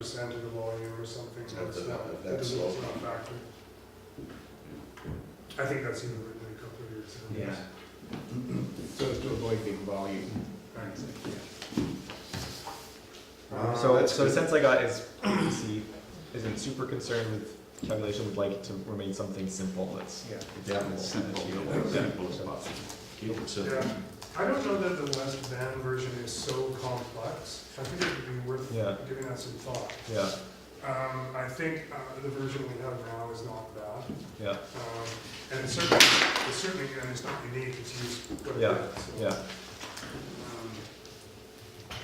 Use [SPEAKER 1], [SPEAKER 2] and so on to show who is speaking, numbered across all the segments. [SPEAKER 1] percent of the volume or something,
[SPEAKER 2] Something
[SPEAKER 1] that's not,
[SPEAKER 2] like
[SPEAKER 1] that
[SPEAKER 2] that,
[SPEAKER 1] doesn't,
[SPEAKER 2] so-
[SPEAKER 1] it's not factored. I think that's even written in a couple of years. ago.
[SPEAKER 3] Yeah. So as to avoid big volume.
[SPEAKER 1] Right.
[SPEAKER 2] Uh,
[SPEAKER 4] So,
[SPEAKER 2] that's
[SPEAKER 4] so the
[SPEAKER 2] good.
[SPEAKER 4] sense I got is, he isn't super concerned with calculation, would like it to remain something simple that's
[SPEAKER 3] Yeah.
[SPEAKER 4] adaptable.
[SPEAKER 5] Simple,
[SPEAKER 4] achievable.
[SPEAKER 5] simple as possible. Keep it simple.
[SPEAKER 1] Yeah, I don't know that the West Van version is so complex, I think it would be
[SPEAKER 4] Yeah.
[SPEAKER 1] worth giving that some thought.
[SPEAKER 4] Yeah,
[SPEAKER 1] Um, I think, uh, the version we have now is not bad,
[SPEAKER 4] yeah,
[SPEAKER 1] um, and it's certainly, it's certainly, and it's not unique, it's used quite a
[SPEAKER 4] Yeah,
[SPEAKER 1] bit, so.
[SPEAKER 4] yeah.
[SPEAKER 1] um,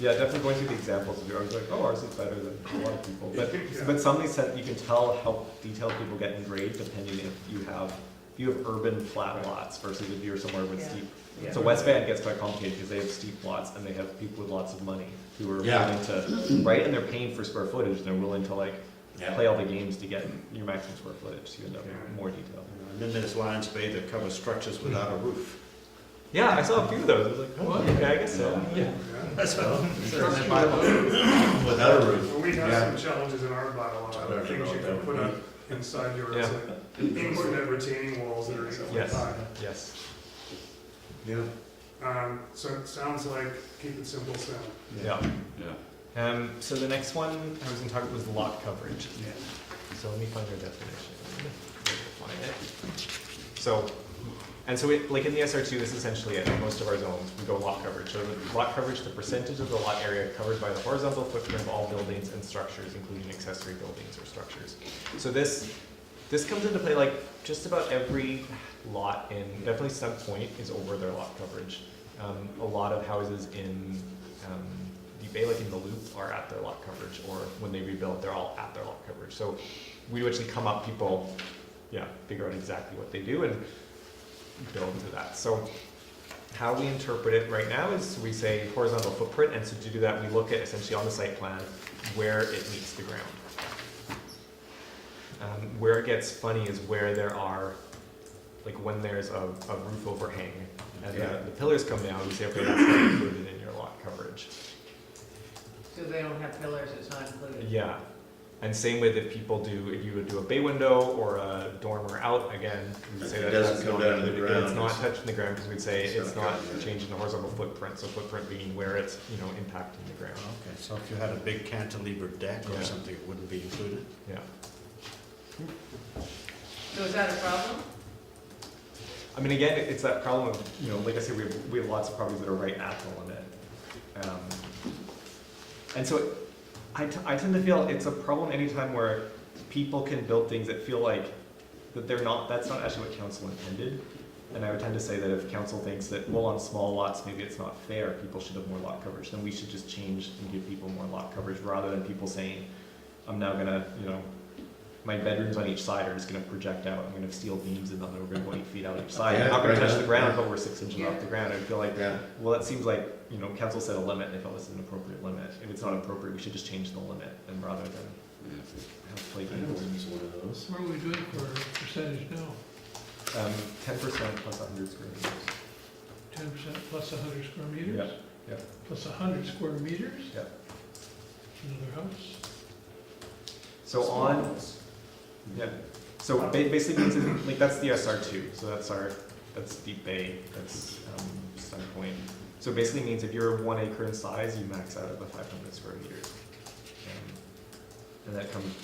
[SPEAKER 4] Yeah, definitely going through the examples of yours, like, oh, ours is better than a lot of people. But,
[SPEAKER 1] Yeah.
[SPEAKER 4] but some of these, sen- you can tell how detailed people get in grade depending if you have, if you have urban flat lots versus if you're somewhere with
[SPEAKER 6] Yeah.
[SPEAKER 4] steep.
[SPEAKER 3] Yeah.
[SPEAKER 4] So West Van gets quite complicated because they have steep lots and they have people with lots of money who are
[SPEAKER 2] Yeah.
[SPEAKER 4] willing to, right? And they're paying for square footage and they're willing to like
[SPEAKER 2] Yeah.
[SPEAKER 4] play all the games to get your maximum square footage, so you end up
[SPEAKER 1] Yeah.
[SPEAKER 4] with more detail.
[SPEAKER 2] And then there's Lions Bay that covers structures without a roof.
[SPEAKER 4] Yeah, I saw a few of those. I was like, oh, okay, I guess so. Yeah.
[SPEAKER 1] um, yeah.
[SPEAKER 2] That's well.
[SPEAKER 1] Structure
[SPEAKER 2] Without a roof.
[SPEAKER 1] Well, we have some
[SPEAKER 2] Yeah.
[SPEAKER 1] challenges in our
[SPEAKER 2] I
[SPEAKER 1] bylaw,
[SPEAKER 2] don't
[SPEAKER 1] things
[SPEAKER 2] know
[SPEAKER 1] you
[SPEAKER 2] what
[SPEAKER 1] can
[SPEAKER 2] that
[SPEAKER 1] put
[SPEAKER 2] would
[SPEAKER 1] up inside your,
[SPEAKER 4] Yeah.
[SPEAKER 1] infinite retaining walls that are eight foot
[SPEAKER 4] Yes.
[SPEAKER 1] high.
[SPEAKER 4] Yes.
[SPEAKER 2] Yeah.
[SPEAKER 1] Um, so it sounds like keep it simple, Sam.
[SPEAKER 4] Yeah.
[SPEAKER 5] Yeah.
[SPEAKER 4] Um, so the next one I was going to talk about was lot coverage.
[SPEAKER 2] Yeah.
[SPEAKER 4] So let me find our definition. Let me Find it. So, and so it, like in the SR2, this is essentially it. In most of our zones, we go lot coverage. So the lot coverage, the percentage of the lot area covered by the horizontal footprint of all buildings and structures, including accessory buildings or structures. So this, this comes into play like just about every lot in, definitely some point is over their lot coverage. Um, a lot of houses in um, the Bay, like in the Loop, are at their lot coverage, or when they rebuild, they're all at their lot coverage. So we would actually come up people, yeah, figure out exactly what they do and build to that. So how we interpret it right now is we say horizontal footprint, and so to do that, we look at essentially on the site plan where it meets the ground. Um, where it gets funny is where there are, like when there's a, a roof overhang and
[SPEAKER 2] Yeah.
[SPEAKER 4] the, the pillars come down, we say, okay, that's not included in your lot coverage.
[SPEAKER 6] So they don't have pillars, it's not included?
[SPEAKER 4] Yeah. And same with if people do, if you would do a bay window or a dormer out, again, we would say
[SPEAKER 2] It
[SPEAKER 4] that
[SPEAKER 2] doesn't
[SPEAKER 4] that's
[SPEAKER 2] go
[SPEAKER 4] not
[SPEAKER 2] down to the
[SPEAKER 4] included. It's
[SPEAKER 2] ground,
[SPEAKER 4] not
[SPEAKER 2] it's-
[SPEAKER 4] touching the ground because we'd say
[SPEAKER 2] it's
[SPEAKER 4] it's
[SPEAKER 2] not
[SPEAKER 4] not
[SPEAKER 2] covered, yeah.
[SPEAKER 4] changing the horizontal footprint, so footprint being where it's, you know, impacting the ground.
[SPEAKER 2] Okay, so if you had a big cantilever deck
[SPEAKER 4] Yeah.
[SPEAKER 2] or something, it wouldn't be included?
[SPEAKER 4] Yeah.
[SPEAKER 6] So is that a problem?
[SPEAKER 4] I mean, again, it- it's that problem of, you know, like I said, we have, we have lots of properties that are right at the limit. Um, And so it- I, t- I tend to feel it's a problem anytime where people can build things that feel like that they're not, that's not actually what council intended. And I would tend to say that if council thinks that, well, on small lots, maybe it's not fair, people should have more lot coverage, then we should just change and give people more lot coverage rather than people saying, I'm now gonna, you know, my bedrooms on each side are just gonna project out, I'm gonna have steel beams and then they're gonna go eight feet out each side. I'm
[SPEAKER 2] Yeah,
[SPEAKER 4] not gonna
[SPEAKER 2] right,
[SPEAKER 4] touch the
[SPEAKER 2] yeah.
[SPEAKER 4] ground, but we're six inches
[SPEAKER 6] Yeah.
[SPEAKER 4] off the ground. I would feel like,
[SPEAKER 2] Yeah.
[SPEAKER 4] well, that seems like, you know, council set a limit, and they felt it's an appropriate limit. If it's not appropriate, we should just change the limit and rather than have play games.
[SPEAKER 2] one of those.
[SPEAKER 7] What are we doing for percentage now?
[SPEAKER 4] Um, ten percent plus a hundred square meters.
[SPEAKER 7] Ten percent plus hundred square meters?
[SPEAKER 4] Yeah, yeah.
[SPEAKER 7] Plus hundred square meters?
[SPEAKER 4] Yeah.
[SPEAKER 7] Another house?
[SPEAKER 4] So on, yeah, so ba- basically, means it- like, that's the SR two, so that's our, that's Deep Bay, that's, um, Sun Point. So basically means if you're one acre in size, you max out at the five hundred square meters. Um, And that comes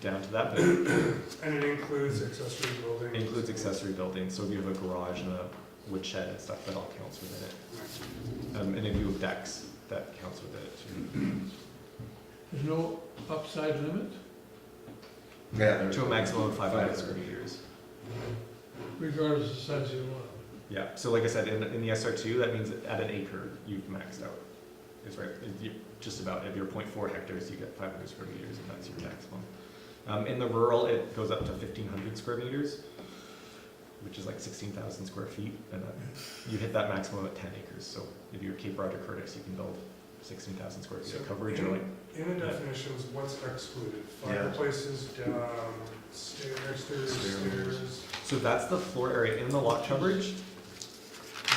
[SPEAKER 4] down to that, but it
[SPEAKER 1] And it includes accessory buildings.
[SPEAKER 4] includes accessory buildings, so if you have a garage and a woodshed and stuff, that all counts within it. Um, and if you have decks, that counts within it too.
[SPEAKER 7] There's no upside limit?
[SPEAKER 2] Yeah.
[SPEAKER 4] To a maximum of five hundred square meters.
[SPEAKER 7] Regardless of size of your lot.
[SPEAKER 4] Yeah, so like I said, in, in the SR two, that means at an acre, you've maxed out. It's right, if you- just about, if you're 0.4 hectares, you get five hundred square meters, and that's your maximum. Um, in the rural, it goes up to fifteen hundred square meters, which is like sixteen thousand square feet, and that, you hit that maximum at ten acres, so if you're Cape Roger Curtis, you can build sixteen thousand square feet of
[SPEAKER 1] So-
[SPEAKER 4] coverage, or like,
[SPEAKER 1] In the definitions, what's excluded?
[SPEAKER 2] Yeah.
[SPEAKER 1] Fireplaces, um, stairs, stairs,
[SPEAKER 2] Stairways.
[SPEAKER 1] stairs.
[SPEAKER 4] so that's the floor area in the lot coverage.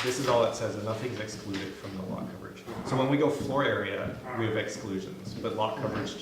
[SPEAKER 4] this is all it says, and nothing's excluded from the lot coverage. So when we go floor area, we have exclusions, but lot coverage